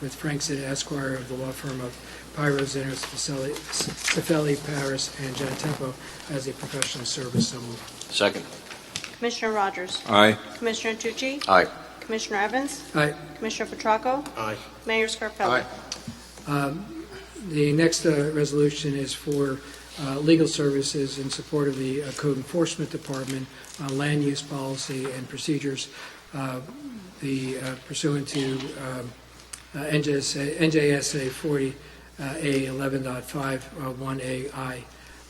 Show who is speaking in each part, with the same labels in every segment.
Speaker 1: with Frank Zeta Esquire of the law firm of Pyro Zinner, Sefeli- Sefeli, Paris, and John Tempo as a professional service. So moved.
Speaker 2: Second.
Speaker 3: Commissioner Rogers?
Speaker 4: Aye.
Speaker 3: Commissioner Tucci?
Speaker 2: Aye.
Speaker 3: Commissioner Evans?
Speaker 1: Aye.
Speaker 3: Commissioner Petracco?
Speaker 2: Aye.
Speaker 3: Mayor Scarpelli?
Speaker 2: Aye.
Speaker 1: The next uh, resolution is for uh, legal services in support of the uh, Code Enforcement Department on land use policy and procedures uh, the uh, pursuant to um, uh, NJSA NJSA uh, 40A11.5, 1AI.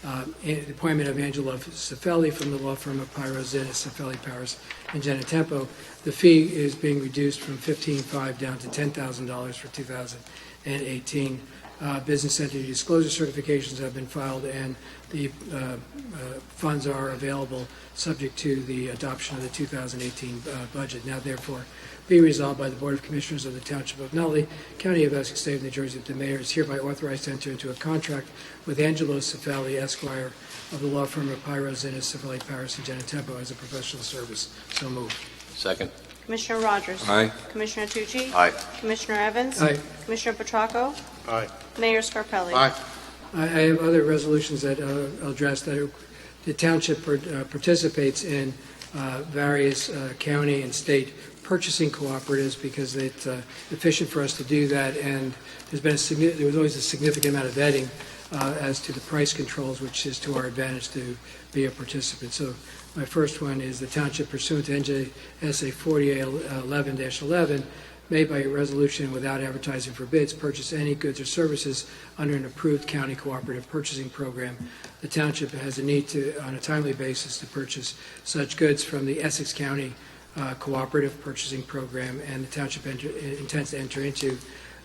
Speaker 1: uh, The appointment of Angela Cefelli from the law firm of Pyro Zeta, Cefelli, Paris, and Genetempo. The fee is being reduced from $15,500 down to $10,000 for 2018. Uh, Business entity disclosure certifications have been filed, and the uh, uh, funds are available subject to the adoption of the 2018 uh, budget. Now therefore be resolved by the Board of Commissioners of the Township of Nutley, County of Essex, State of New Jersey, that the mayor is hereby authorized to enter into a contract with Angelo Cefali Esquire of the law firm of Pyro Zinnis, Cefali Paris, and Genetempo as a professional service. So moved.
Speaker 2: Second.
Speaker 3: Commissioner Rogers?
Speaker 4: Aye.
Speaker 3: Commissioner Tucci?
Speaker 2: Aye.
Speaker 3: Commissioner Evans?
Speaker 1: Aye.
Speaker 3: Commissioner Petracco?
Speaker 2: Aye.
Speaker 3: Mayor Scarpelli?
Speaker 1: I I have other resolutions that uh, I'll address that are- the township par- uh, participates in uh, various uh, county and state purchasing cooperatives because it's uh, efficient for us to do that, and there's been a signi- there was always a significant amount of vetting uh, as to the price controls, which is to our advantage to be a participant. So my first one is the township pursuant to NJSA 4811-11, made by resolution without advertising for bids, purchase any goods or services under an approved county cooperative purchasing program. The township has a need to, on a timely basis, to purchase such goods from the Essex County uh, Cooperative Purchasing Program, and the township enter- intends to enter into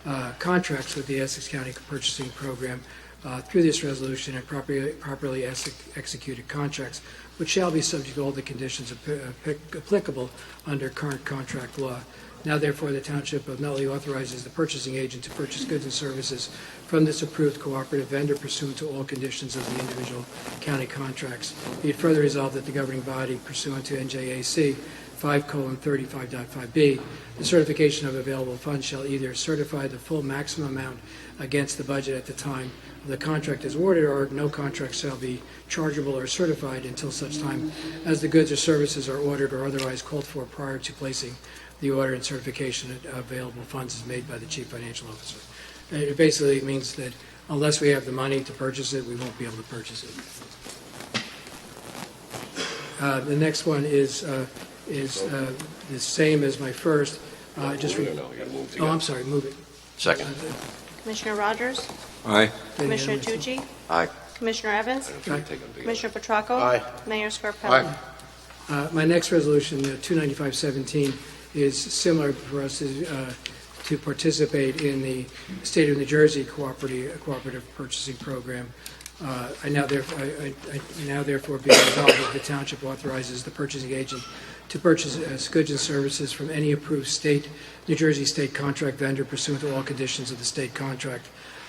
Speaker 1: uh, contracts with the Essex County Purchasing Program uh, through this resolution and properly properly ex- executed contracts, which shall be subject to all the conditions ap- ap- applicable under current contract law. Now therefore, the Township of Nutley authorizes the purchasing agent to purchase goods and services from this approved cooperative vendor pursuant to all conditions of the individual county contracts. Be it further resolved that the governing body pursuant to NJAC 5:35.5B, the certification of available funds shall either certify the full maximum amount against the budget at the time the contract is awarded, or no contract shall be chargeable or certified until such time as the goods or services are ordered or otherwise called for prior to placing the order and certification of available funds is made by the chief financial officer. And It basically means that unless we have the money to purchase it, we won't be able to purchase it. Uh, The next one is, uh, is uh, the same as my first. Uh, Just, re- oh, I'm sorry, move it.
Speaker 2: Second.
Speaker 3: Commissioner Rogers?
Speaker 4: Aye.
Speaker 3: Commissioner Tucci?
Speaker 2: Aye.
Speaker 3: Commissioner Evans? Commissioner Petracco?
Speaker 2: Aye.
Speaker 3: Mayor Scarpelli?
Speaker 1: Uh, My next resolution, uh, 29517, is similar for us is, uh, to participate in the State of New Jersey Cooperative Cooperative Purchasing Program. Uh, I now therefore, I I- I now therefore be resolved that the township authorizes the purchasing agent to purchase uh, goods and services from any approved state, New Jersey state contract vendor pursuant to all conditions of the state contract,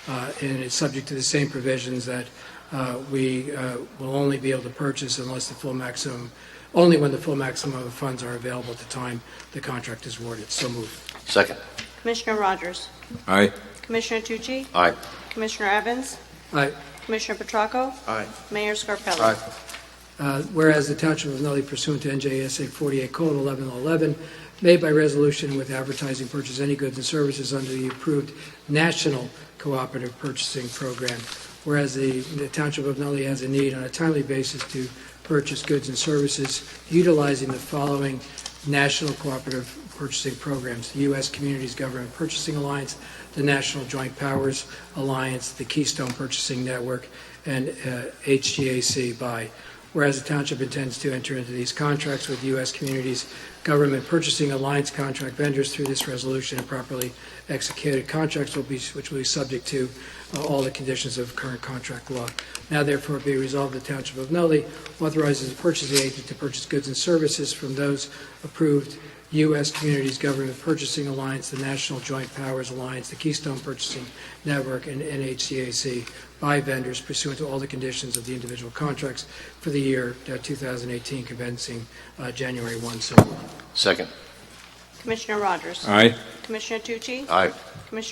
Speaker 1: uh, and it's subject to the same provisions that uh, we uh, will only be able to purchase unless the full maximum only when the full maximum of the funds are available at the time the contract is awarded. So moved.
Speaker 2: Second.
Speaker 3: Commissioner Rogers?
Speaker 4: Aye.
Speaker 3: Commissioner Tucci?
Speaker 2: Aye.
Speaker 3: Commissioner Evans?
Speaker 1: Aye.
Speaker 3: Commissioner Petracco?
Speaker 2: Aye.
Speaker 3: Mayor Scarpelli?
Speaker 2: Aye.
Speaker 1: Uh, Whereas the Township of Nutley pursuant to NJSA 48 colon 1111, made by resolution with advertising purchase any goods and services under the approved National Cooperative Purchasing Program. Whereas the the Township of Nutley has a need on a timely basis to purchase goods and services utilizing the following National Cooperative Purchasing Programs, the U.S. Communities Government Purchasing Alliance, the National Joint Powers Alliance, the Keystone Purchasing Network, and uh, HGAC by. Whereas the township intends to enter into these contracts with U.S. Communities Government Purchasing Alliance contract vendors through this resolution and properly executed contracts will be, which will be subject to uh, all the conditions of current contract law. Now therefore be resolved, the Township of Nutley authorizes the purchasing agent to purchase goods and services from those approved U.S. Communities Government Purchasing Alliance, the National Joint Powers Alliance, the Keystone Purchasing Network, and NHCAC by vendors pursuant to all the conditions of the individual contracts for the year uh, 2018 commencing uh, January 1. So
Speaker 2: Second.
Speaker 3: Commissioner Rogers?
Speaker 4: Aye.
Speaker 3: Commissioner Tucci?
Speaker 2: Aye.
Speaker 3: Commissioner